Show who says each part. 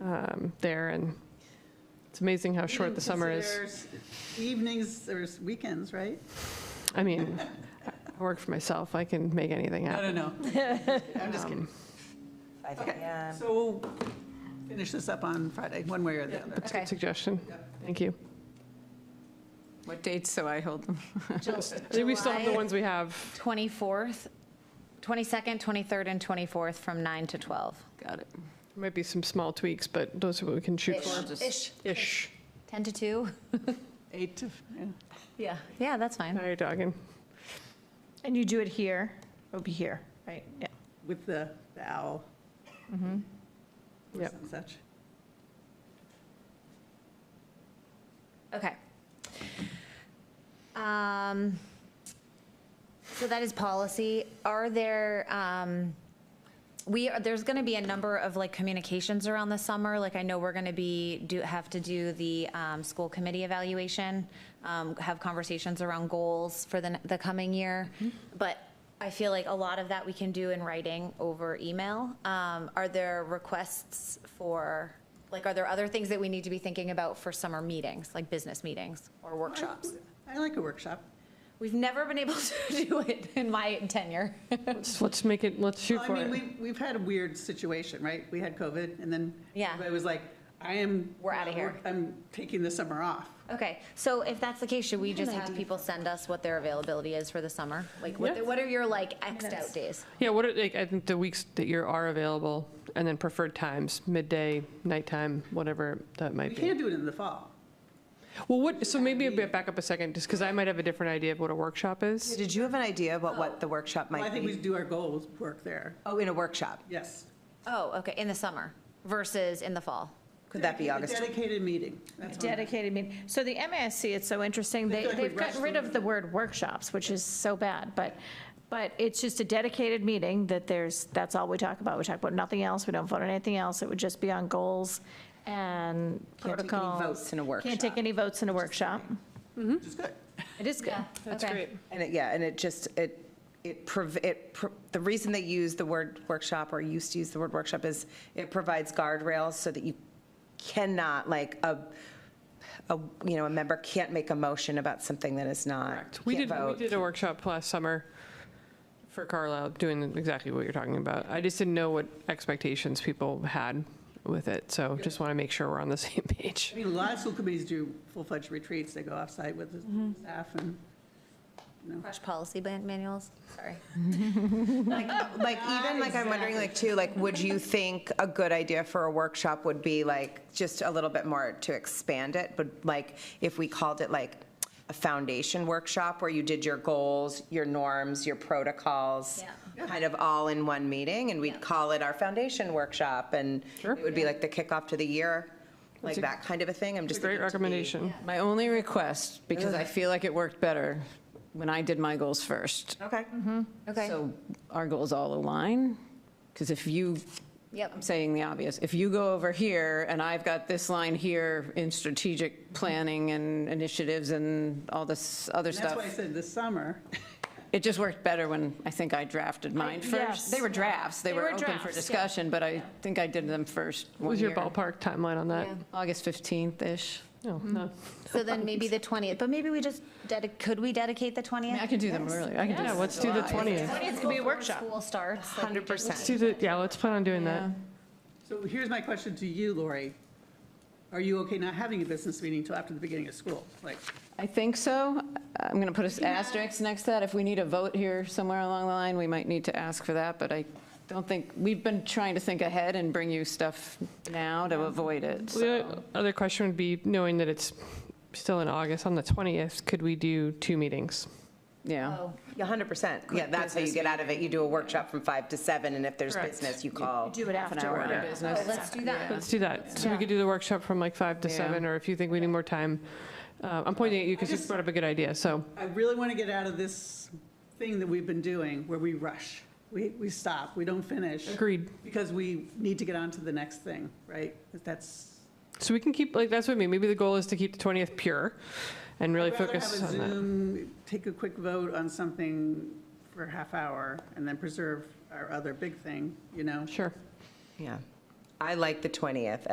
Speaker 1: um, there, and it's amazing how short the summer is.
Speaker 2: Considers Evenings or s- weekends, right?
Speaker 1: I mean, I work for myself, I can make anything
Speaker 2: I
Speaker 1: happen. Um,
Speaker 2: don't know. I'm just kidding.
Speaker 3: 5
Speaker 2: Okay.
Speaker 3: PM.
Speaker 2: So we'll finish this up on Friday, one way or the other.
Speaker 1: That's a good suggestion. Thank you.
Speaker 4: What dates do I hold them?
Speaker 1: I think we still have the
Speaker 5: July-
Speaker 1: ones we have.
Speaker 5: 24th, 22nd, 23rd, and 24th from 9 to 12.
Speaker 4: Got it.
Speaker 1: Might be some small tweaks, but those are what we can shoot for.
Speaker 4: Just-
Speaker 5: Ish.
Speaker 1: Ish.
Speaker 5: 10 to 2?
Speaker 2: Eight to, yeah.
Speaker 5: Yeah. Yeah, that's fine.
Speaker 1: Now you're dogging.
Speaker 6: And you do it here, it'll be here, right? Yeah.
Speaker 2: with the the owl.
Speaker 5: Mm-hmm.
Speaker 2: Or
Speaker 1: Yep.
Speaker 2: some such.
Speaker 5: Okay. Um, So that is policy. Are there, um, we, are- there's going to be a number of like communications around the summer. Like I know we're going to be, do, have to do the um, school committee evaluation, um, have conversations around goals for the, the coming year. But I feel like a lot of that we can do in writing over email. Um, Are there requests for, like, are there other things that we need to be thinking about for summer meetings, like business meetings or workshops?
Speaker 2: I like a workshop.
Speaker 5: We've never been able to do it in my tenure.
Speaker 1: Let's, let's make it, let's shoot
Speaker 2: Well,
Speaker 1: for
Speaker 2: I mean,
Speaker 1: it.
Speaker 2: we, we've had a weird situation, right? We had COVID, and then
Speaker 5: Yeah.
Speaker 2: everybody was like, I am.
Speaker 5: We're outta
Speaker 2: not
Speaker 5: here.
Speaker 2: work- I'm taking the summer off.
Speaker 5: Okay, so if that's the case, should we just have people send us what their availability is for the summer? Like,
Speaker 1: Yeah.
Speaker 5: what what are your, like, Xed out days?
Speaker 1: Yeah, what are, like, I think the weeks that you are available, and then preferred times, midday, nighttime, whatever that
Speaker 2: We
Speaker 1: might be.
Speaker 2: can't do it in the fall.
Speaker 1: Well, what, so maybe a bit back up a second, just because I might have a different idea of what a workshop is.
Speaker 3: Did you have an idea about what the workshop
Speaker 2: Well, I
Speaker 3: might
Speaker 2: think we
Speaker 3: be?
Speaker 2: do our goals work there.
Speaker 3: Oh, in a workshop?
Speaker 2: Yes.
Speaker 5: Oh, okay, in the summer versus in the fall?
Speaker 3: Could that be
Speaker 2: Dedicated-
Speaker 3: August?
Speaker 2: Dedicated meeting. That's what I'm-
Speaker 6: Dedicated meeting. So the MASC, it's so interesting,
Speaker 2: I
Speaker 6: they,
Speaker 2: feel like we
Speaker 6: they've
Speaker 2: rushed
Speaker 6: gotten rid
Speaker 2: through
Speaker 6: of the word workshops, which is so bad, but, but it's just a dedicated meeting that there's, that's all we talk about. We talk about nothing else, we don't vote on anything else, it would just be on goals and
Speaker 3: Can't take any
Speaker 6: protocols.
Speaker 3: votes in a
Speaker 6: Can't take
Speaker 3: workshop.
Speaker 6: any votes in a workshop. Mm-hmm.
Speaker 2: Which is good.
Speaker 6: It is good.
Speaker 5: That's great.
Speaker 3: And it, yeah, and it just, it, it, prov- it, pro- the reason they use the word workshop or used to use the word workshop is it provides guardrails so that you cannot, like, a, a, you know, a member can't make a motion about something that is not,
Speaker 1: We
Speaker 3: can't
Speaker 1: did, we
Speaker 3: vote.
Speaker 1: did a workshop last summer for Carlisle, doing exactly what you're talking about. I just didn't know what expectations people had with it, so just want to make sure we're on the same page.
Speaker 2: I mean, a lot of school committees do full-fledged retreats. They go offsite with
Speaker 1: Mm-hmm.
Speaker 2: the staff and
Speaker 5: Fresh policy ban- manuals, sorry.
Speaker 3: Like, even, like, I'm wondering, like, too, like, would you think a good idea for a workshop would be, like, just a little bit more to expand it? But, like, if we called it, like, a foundation workshop where you did your goals, your norms, your protocols,
Speaker 5: Yeah.
Speaker 3: kind of all in one meeting, and we'd call it our foundation workshop, and
Speaker 1: Sure.
Speaker 3: it would be like the kickoff to the year, like
Speaker 1: a-
Speaker 3: that kind of a thing? I'm just.
Speaker 1: Great
Speaker 3: thinking to be-
Speaker 1: recommendation.
Speaker 4: My only request, because I feel like it worked better when I did my goals first.
Speaker 3: Okay.
Speaker 5: Okay,
Speaker 4: So our goals all align, because if you,
Speaker 5: Yep.
Speaker 4: I'm saying the obvious, if you go over here and I've got this line here in strategic planning and initiatives and all this other
Speaker 2: that's why I
Speaker 4: stuff,
Speaker 2: said this summer.
Speaker 4: it just worked better when I think I drafted mine
Speaker 6: Yes.
Speaker 4: first. They were drafts, they
Speaker 6: They
Speaker 4: were
Speaker 6: were
Speaker 4: open
Speaker 6: drafts,
Speaker 4: for
Speaker 6: yeah.
Speaker 4: discussion, but I think I did them first
Speaker 1: What
Speaker 4: one
Speaker 1: was your
Speaker 4: year.
Speaker 1: ballpark timeline on that?
Speaker 5: Yeah.
Speaker 4: August 15th-ish.
Speaker 1: No, no.
Speaker 5: so then maybe the 20th, but maybe we just, dedi- could we dedicate the
Speaker 4: I mean, I
Speaker 5: 20th?
Speaker 4: can do them early, I can do
Speaker 1: Yeah,
Speaker 4: them.
Speaker 1: let's do the 20th.
Speaker 5: It could be a workshop. School starts. like, we just-
Speaker 1: Let's do the, yeah, let's plan on doing that.
Speaker 2: So here's my question to you, Lori. Are you okay not having a business meeting until after the beginning of school? Like,
Speaker 4: I think so. I'm going to put an asterisk next to that. If we need a vote here somewhere along the line, we might need to ask for that, but I don't think, we've been trying to think ahead and bring you stuff now to avoid it,
Speaker 1: The
Speaker 4: so.
Speaker 1: other question would be, knowing that it's still in August, on the 20th, could we do two meetings?
Speaker 4: Yeah.
Speaker 5: Oh,
Speaker 3: Yeah, 100%. Yeah, that's how you get out of it. You do a workshop from 5 to 7, and if there's
Speaker 1: Correct.
Speaker 3: business, you call.
Speaker 6: Do it
Speaker 4: Half an hour
Speaker 6: afterward.
Speaker 4: on business.
Speaker 5: Oh, let's do that.
Speaker 1: Let's do that. So we could do the workshop from like 5 to
Speaker 4: Yeah.
Speaker 1: 7, or if you think we need more time. Uh, I'm pointing at you because you
Speaker 2: just-
Speaker 1: brought up a good idea, so.
Speaker 2: I really want to get out of this thing that we've been doing where we rush. We, we stop, we don't finish.
Speaker 1: Agreed.
Speaker 2: Because we need to get on to the next thing, right? That's.
Speaker 1: So we can keep, like, that's what I mean, maybe the goal is to keep the 20th pure and really
Speaker 2: I'd rather
Speaker 1: focus
Speaker 2: have a
Speaker 1: on that.
Speaker 2: Zoom, Take a quick vote on something for a half hour and then preserve our other big thing, you know?
Speaker 1: Sure.
Speaker 3: Yeah. I like the 20th